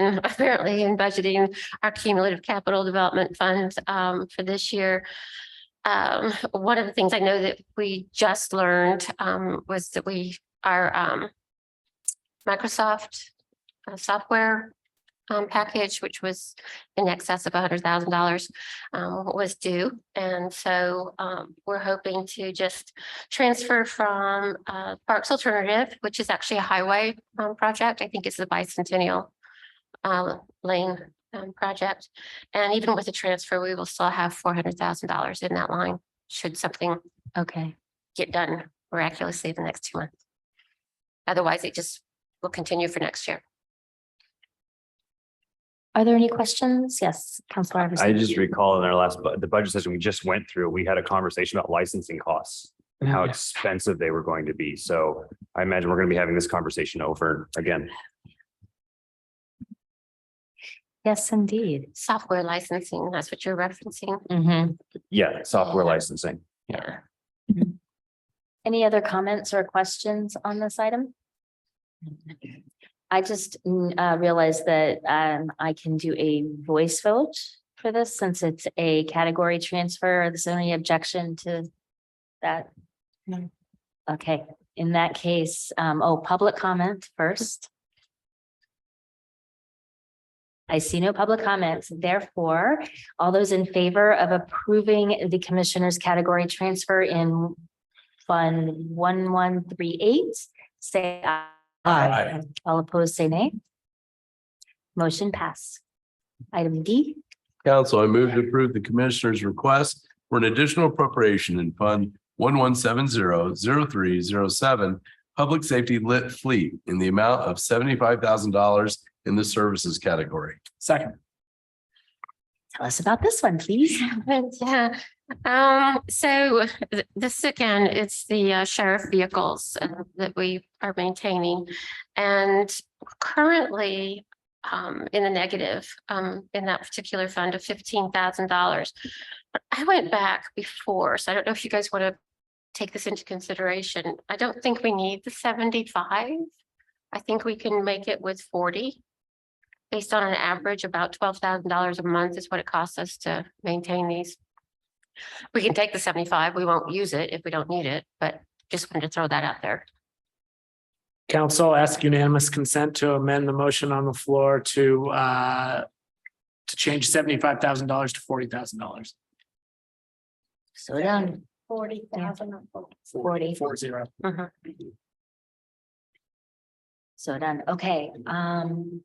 and apparently in budgeting our cumulative capital development funds um, for this year. Um, one of the things I know that we just learned um, was that we our um, Microsoft uh, software um, package, which was in excess of hundred thousand dollars um, was due. And so um, we're hoping to just transfer from uh, Parks Alternative, which is actually a highway um, project. I think it's the bicentennial uh, lane um, project. And even with the transfer, we will still have four hundred thousand dollars in that line, should something Okay, get done miraculously the next two months. Otherwise, it just will continue for next year. are there any questions? Yes, Counselor I Iverson. just recall in our last, bu- the budget session we just went through, we had a conversation about licensing costs and how expensive they were going to be. So I imagine we're going to be having this conversation over again. Yes, indeed. Software licensing, that's what you're referencing. Mhm. Yeah, software licensing. Yeah. Any other comments or questions on this item? I just mm, uh, realized that um, I can do a voice vote for this since it's a category transfer. There's any objection to that? No. Okay, in that case, um, oh, public comment first. I see no public comments. Therefore, all those in favor of approving the commissioner's category transfer in Fund one, one, three, eight, say aye. Aye. All opposed, say nay. Motion pass. Item D, Council, I move to approve the commissioner's request for an additional appropriation in Fund one one seven zero zero three zero seven Public Safety Lit Fleet in the amount of seventy-five thousand dollars in the services category. Second. tell us about this one, please. Yeah, um, so th- this again, it's the uh, sheriff vehicles uh, that we are maintaining. And currently, um, in the negative, um, in that particular fund of fifteen thousand dollars. But I went back before, so I don't know if you guys want to take this into consideration. I don't think we need the seventy-five. I think we can make it with forty. Based on an average, about twelve thousand dollars a month is what it costs us to maintain these. We can take the seventy-five, we won't use it if we don't need it, but just wanted to throw that out there. Council ask unanimous consent to amend the motion on the floor to uh. To change seventy-five thousand dollars to forty thousand dollars. Slow down, Forty thousand. Forty. Four zero. Mhm. slow down. Okay, um.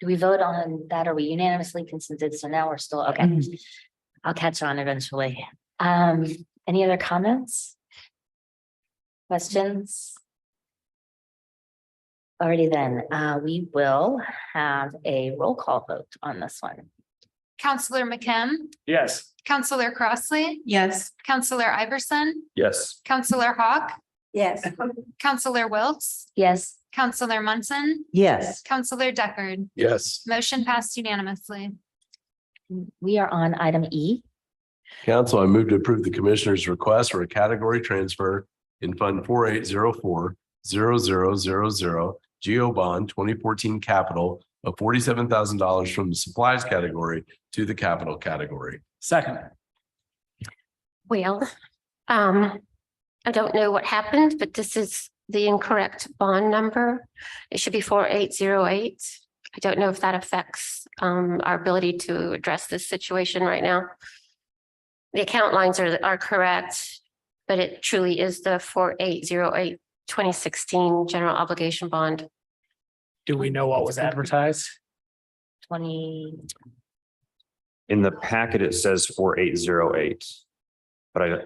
Do we vote on that? Are we unanimously consented? So now we're still, okay. I'll catch on eventually. Um, any other comments? Questions? Alrighty then, uh, we will have a roll call vote on this one. Counselor McKim, Yes. Counselor Crossley. Yes. Counselor Iverson, Yes. Counselor Hawk, Yes. Counselor Wiltz, Yes, Counselor Munson, Yes. Counselor Deckard. Yes. Motion passed unanimously. we are on item E. Council, I move to approve the commissioner's request for a category transfer in Fund four eight zero four zero zero zero zero Geo Bond twenty fourteen Capital of forty-seven thousand dollars from the supplies category to the capital category. Second. Well, um, I don't know what happened, but this is the incorrect bond number. It should be four eight zero eight. I don't know if that affects, um, our ability to address this situation right now. The account lines are, are correct, but it truly is the four eight zero eight twenty sixteen general obligation bond. Do we know what was advertised? Twenty. In the packet, it says four eight zero eight. But I,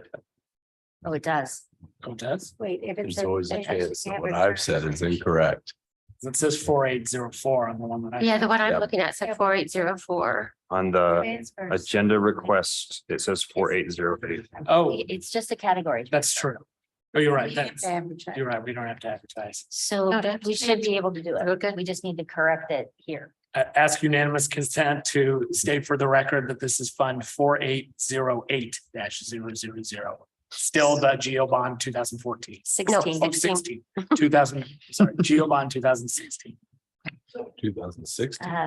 Oh, it does. Oh, it does. Wait, if it's. There's always a chance that what I've said is incorrect. It says four eight zero four on the one that I. Yeah, the one I'm Yep. looking at said four eight zero four. on the Transfers. agenda request, it says four eight zero eight. Oh, It's just a category. that's true. Oh, you're right. We have That's, to advertise. you're right. We don't have to advertise. So No, Oh, that's- we should be able to do it. Okay. We just need to correct it here. A- ask unanimous consent to state for the record that this is Fund four eight zero eight dash zero zero zero. Still the Geo Bond two thousand fourteen. Sixteen. Oh, 16, 2000, sorry, Geo Bond two thousand sixteen. Two thousand six. Uh,